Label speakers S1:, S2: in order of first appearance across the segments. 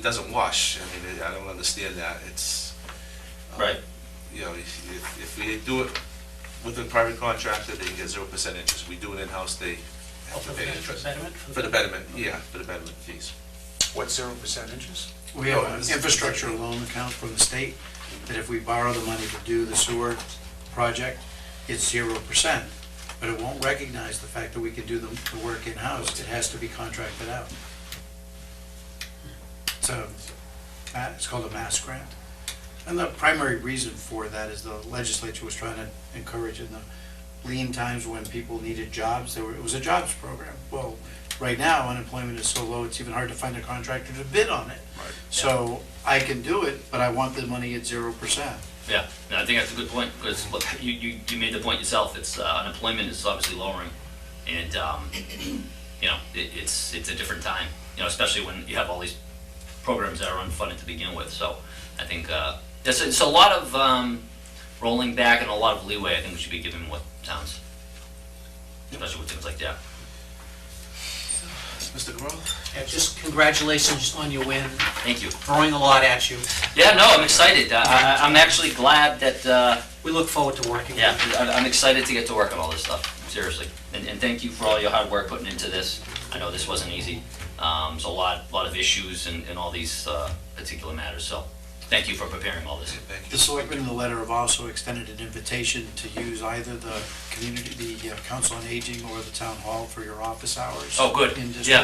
S1: It doesn't wash. I mean, I don't understand that. It's. um,
S2: Right.
S1: You know, if, if- if we do it with a private contractor, they can get zero percent interest. We do it in-house, they have to pay interest. For the betterment, yeah, for the betterment fees.
S3: What, zero percent interest?
S4: We have an infrastructure loan account from the state, that if we borrow the money to do the sewer project, it's zero percent, but it won't recognize the fact that we can do the, the work in-house, it has to be contracted out. So, uh, it's called a mass grant. And the primary reason for that is the legislature was trying to encourage in the lean times when people needed jobs, there were, it was a jobs program. Well, right now unemployment is so low, it's even hard to find a contractor to bid on it.
S1: Right.
S4: So I can do it, but I want the money at zero percent.
S2: Yeah, no, I think that's a good point, because you, you, you made the point yourself, it's, uh, unemployment is obviously lowering, and, um, you know, it, it's, it's a different time, you know, especially when you have all these programs that are unfunded to begin with, so I think, uh, there's, it's a lot of, um, rolling back and a lot of leeway, I think we should be giving what towns, especially with things like that.
S1: Mr. Grohl?
S5: Yeah, Just congratulations on your win,
S2: Thank you.
S5: throwing a lot at you.
S2: Yeah, no, I'm excited, I, I, I'm actually glad that, uh,
S5: We look forward to working
S2: Yeah,
S5: with you.
S2: I- I'm excited to get to work on all this stuff, seriously. And, and thank you for all your hard work putting into this. I know this wasn't easy. Um, there's a lot, lot of issues and, and all these, uh, particular matters, so thank you for preparing all this.
S1: Thank
S4: The selectmen in the letter have also extended an invitation to use either the community, the uh, council on aging or the town hall for your office hours.
S2: Oh, good.
S4: In district,
S2: Yeah.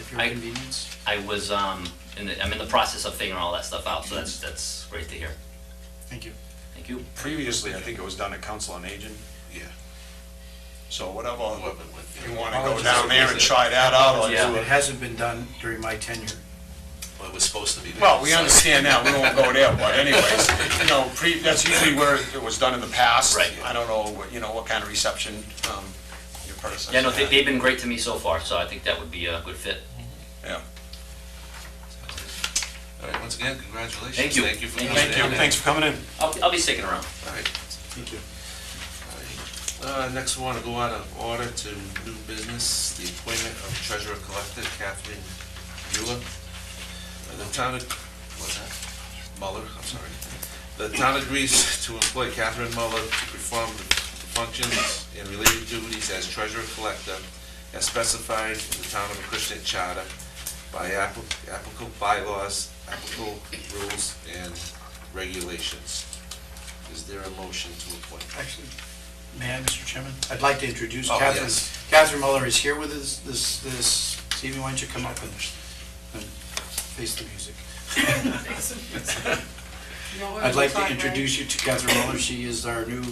S4: At your
S2: I-
S4: convenience.
S2: I was, um, in the, I'm in the process of figuring all that stuff out, so that's, that's great to hear.
S4: Thank you.
S2: Thank you.
S3: Previously, I think it was done at Council on Aging,
S1: Yeah.
S3: so whatever,
S1: Whoever would,
S3: you
S1: know,
S3: want to go down there and try that out, or
S2: Yeah.
S3: do
S4: It
S3: it.
S4: hasn't been done during my tenure.
S1: What was supposed to be. done.
S3: Well, we understand now, we won't go there, but anyways, you know, pre, that's usually where it was done in the past.
S2: Right.
S3: I don't know, what you know, what kind of reception, um, your predecessor
S2: Yeah, no, they,
S3: had.
S2: they've been great to me so far, so I think that would be a good fit.
S3: Yeah.
S1: All right, once again, congratulations.
S2: Thank you.
S1: Thank you for coming
S2: Thank
S1: in.
S3: Thank you, thanks for coming in.
S2: I'll, I'll be sticking around.
S1: All right.
S4: Thank you.
S1: Uh, Next, we want to go out of order to new business, the appointment of treasurer collector Kathleen Bueller. Uh, The town, ag- what's that? Muller, I'm sorry. The town agrees to employ Catherine Muller to perform the functions and related duties as treasurer collector as specified in the town of Acushnet charter by appli- applicable bylaws, applicable rules, and regulations. Is there a motion to appoint?
S4: Actually, may I, Mr. Chairman? I'd like to introduce
S1: Oh,
S4: Catherine.
S1: yes.
S4: Catherine Muller is here with us this, this evening. Why don't you come up and and face the music? I'd like to introduce you to Catherine Muller. She is our new,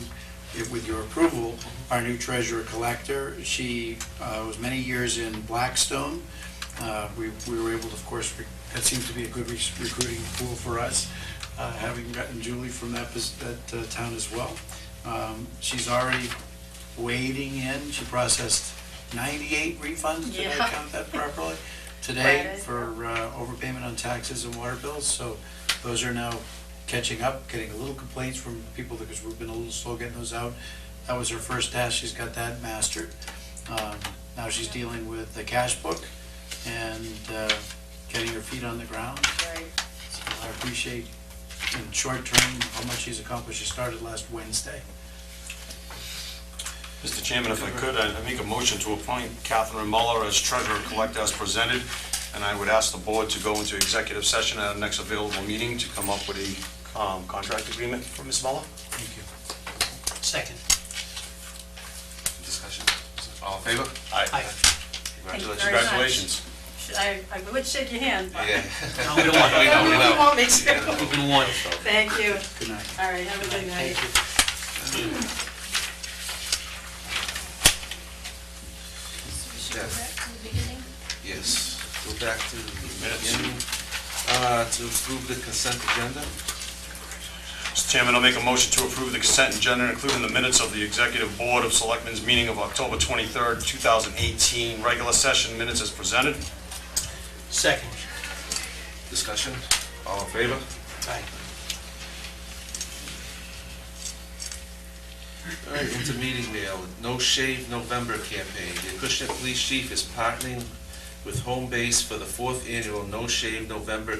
S4: if- with your approval, our new treasurer collector. She uh, was many years in Blackstone. Uh, We we were able, to, of course, re- that seemed to be a good re- recruiting pool for us, uh, having gotten Julie from that, pos- that uh, town as well. Um, She's already wading in. She processed 98 refunds, did I
S6: Yeah.
S4: count that properly? Today
S6: Right.
S4: for uh, overpayment on taxes and water bills, so those are now catching up, getting a little complaints from people because we've been a little slow getting those out. That was her first task, she's got that mastered. Um, Now she's dealing with the cash book and uh, getting her feet on the ground.
S6: Right.
S4: So I appreciate in short term how much she's accomplished. She started last Wednesday.
S3: Mr. Chairman, if I could, I'd make a motion to appoint Catherine Muller as treasurer collector as presented, and I would ask the board to go into executive session at our next available meeting to come up with a um, contract agreement for Ms. Muller.
S4: Thank you.
S5: Second.
S1: Discussion? All in favor?
S5: Aye.
S1: Congratulations.
S6: very much.
S3: Congratulations.
S6: I, I would shake your hand, but.
S1: Yeah.
S5: No, we don't want
S1: We
S5: it.
S1: know, we
S6: You
S1: know.
S6: won't make sure.
S5: We've been warned.
S6: Thank you.
S4: Good night.
S6: All right, have a good night.
S5: Thank you.
S1: go back Yes, go back to the
S3: Minutes.
S1: beginning, uh, to approve the consent agenda.
S3: Mr. Chairman, I'll make a motion to approve the consent agenda, including the minutes of the Executive Board of Selectmen's meeting of October 23rd, 2018, regular session minutes as presented.
S5: Second.
S1: Discussion? All in favor?
S5: Aye.
S1: All right, into meeting mail, No Shave November campaign. The Acushnet Police Chief is partnering with Home Base for the fourth annual No Shave November